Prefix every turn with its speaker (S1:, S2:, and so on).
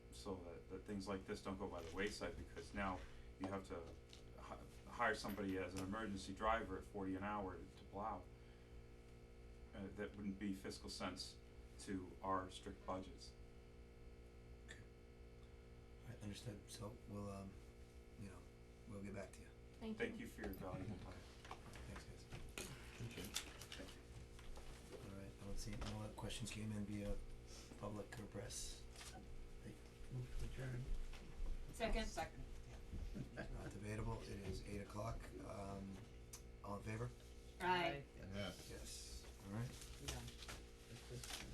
S1: so that, that things like this don't go by the wayside, because now you have to hi- hire somebody as an emergency driver at forty an hour to plow. Uh, that wouldn't be fiscal sense to our strict budgets.
S2: Alright, understood, so we'll, um, you know, we'll get back to you,
S3: Thank you.
S1: Thank you for your valuable time,
S2: thanks guys.
S1: thank you.
S2: Alright, I don't see, any other questions came in via public or press,
S4: Move to adjourn.
S3: Second.
S2: not debatable, it is eight o'clock, um, all in favor?